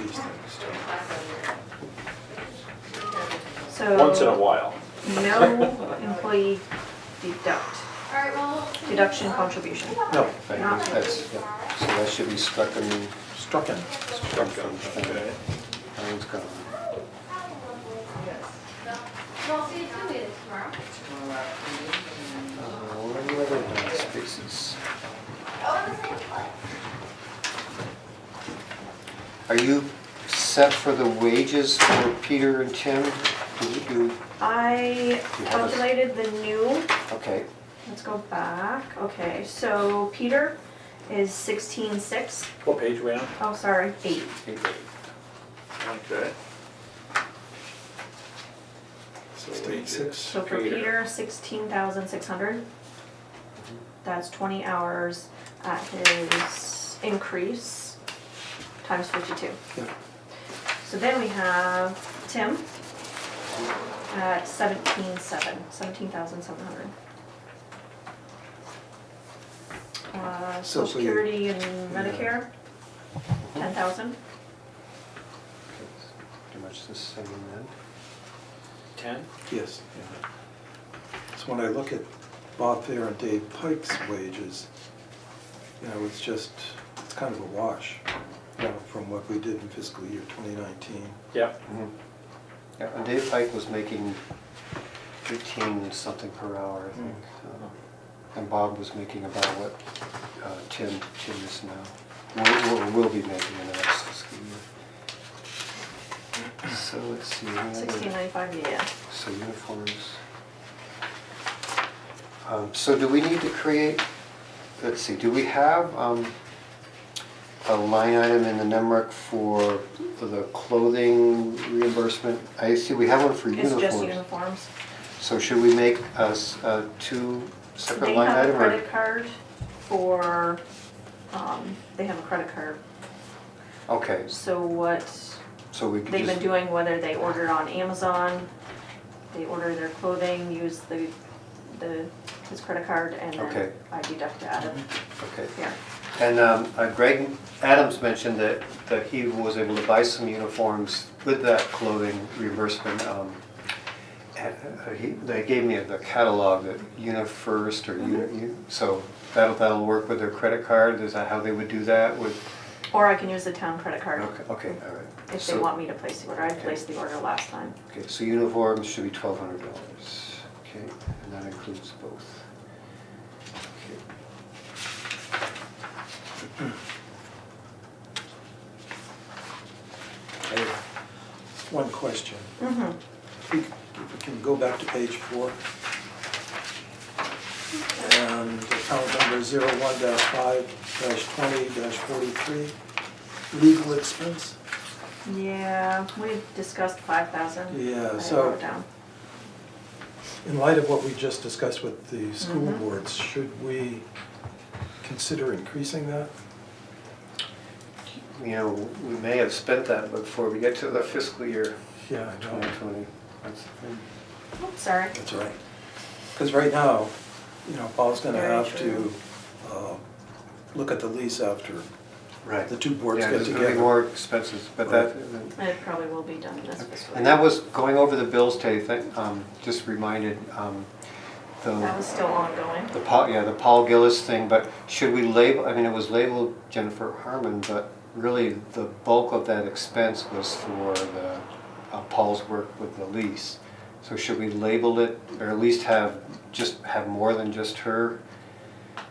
these things So. Once in a while. No employee deduct, deduction contribution. No, thank you, that's, yeah, so that should be struck in, Struck in. struck from, that one's gone. Uh, Where are the other blank spaces? Are you set for the wages for Peter and Tim? Do you do, I You have a- calculated the new, okay, let's go back, okay, so Peter is sixteen six, What page we on? oh, sorry, eight. Okay. Sixteen six. So for Peter, sixteen thousand six hundred. That's twenty hours at his increase, times fifty-two. Yeah. So then we have Tim at seventeen seven, seventeen thousand seven hundred. Uh, So- social so you- security and uh, Medicare, ten thousand, pretty much the same then. Ten? Yes. yeah. So when I look at Bob Fair and Dave Pike's wages, you know, it's just, it's kind of a wash, you know, from what we did in fiscal year 2019. Yep. Mm-hmm. Yeah, and Dave Pike was making fifteen something per hour, I think. so. And Bob was making about what uh, Tim, Tim is now, will, will- will be making in the next fiscal year. So let's see. another- sixteen ninety-five, yeah. So uniforms. Um, So do we need to create, let's see, do we have um, a line item in the NEMRIC for the clothing reimbursement? I see we have one for It's just uniforms. uniforms. So should we make us uh, two They separate line have a item? or- credit card for, um, they have a credit card, Okay, so what so we could they've been just, doing, whether they order on Amazon, they order their clothing, use the, the, his credit card, and Okay. Mm-hmm. then I deduct it out of, okay. yeah. And um, uh, Greg Adams mentioned that, that he was able to buy some uniforms with that clothing reimbursement. um, and, uh, he- They gave me the catalog, that UniFirst or Uni, U- so that'll, that'll work with their credit card? Is that how they would do that with? Or I can use the town credit card Okay, okay, all right. if they So- want me to place the order. I Okay. placed the order last time. Okay, so uniforms should be twelve hundred dollars, okay, and that includes both. I have One question. Mm-hmm. If we if we can go back to page four. And account number 01-5-20-43, legal expense. Yeah, we discussed five thousand. Yeah, so- I wrote down. In light of what we just discussed with the school Mhm. boards, should we consider increasing that? You know, we may have spent that before we get to the fiscal year Yeah, I twenty twenty. That's the thing. Oops, sorry. That's right. Because right now, you know, Paul's gonna Very have to true. uh, look at the lease after. Right. The two boards Yeah, get there's gonna be together. more expenses, but that, It probably will be done this fiscal. and that was, going over the bills today, that, um, just reminded, um, That was the, still ongoing. the Paul, yeah, the Paul Gillis thing, but should we label, I mean, it was labeled Jennifer Harmon, but really the bulk of that expense was for the, uh, Paul's work with the lease. So should we label it, or at least have, just have more than just her?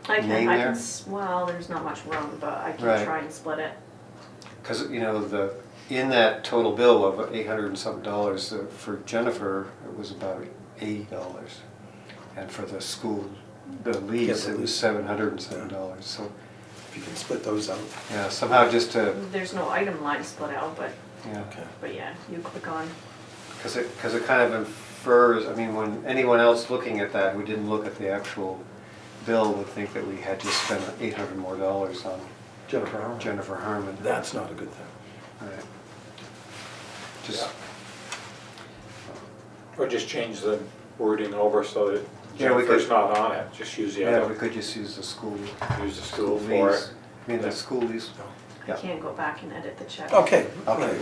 I can, name I there? can, s- well, there's not much room, but I Right. can try and split it. Because, you know, the, in that total bill of eight hundred and something dollars, uh, for Jennifer, it was about eighty dollars. And for the school, the lease, Yeah, it was the lease. seven hundred and seven dollars, so, If you can split those out. yeah, somehow just to, There's no item line split out, but, yeah. but yeah, you click on, Because it, because it kind of infers, I mean, when anyone else looking at that who didn't look at the actual bill would think that we had to spend eight hundred more dollars on Jennifer Arnold. Jennifer Harmon. That's not a good thing. Right. Just, Or just change the wording over so that Yeah, we could- Jennifer's not on it, just use the yeah, we other, could just use the school. use the school for lease. it. I mean, the school lease, I Yeah. can't go back and edit the check. Okay, Okay. right.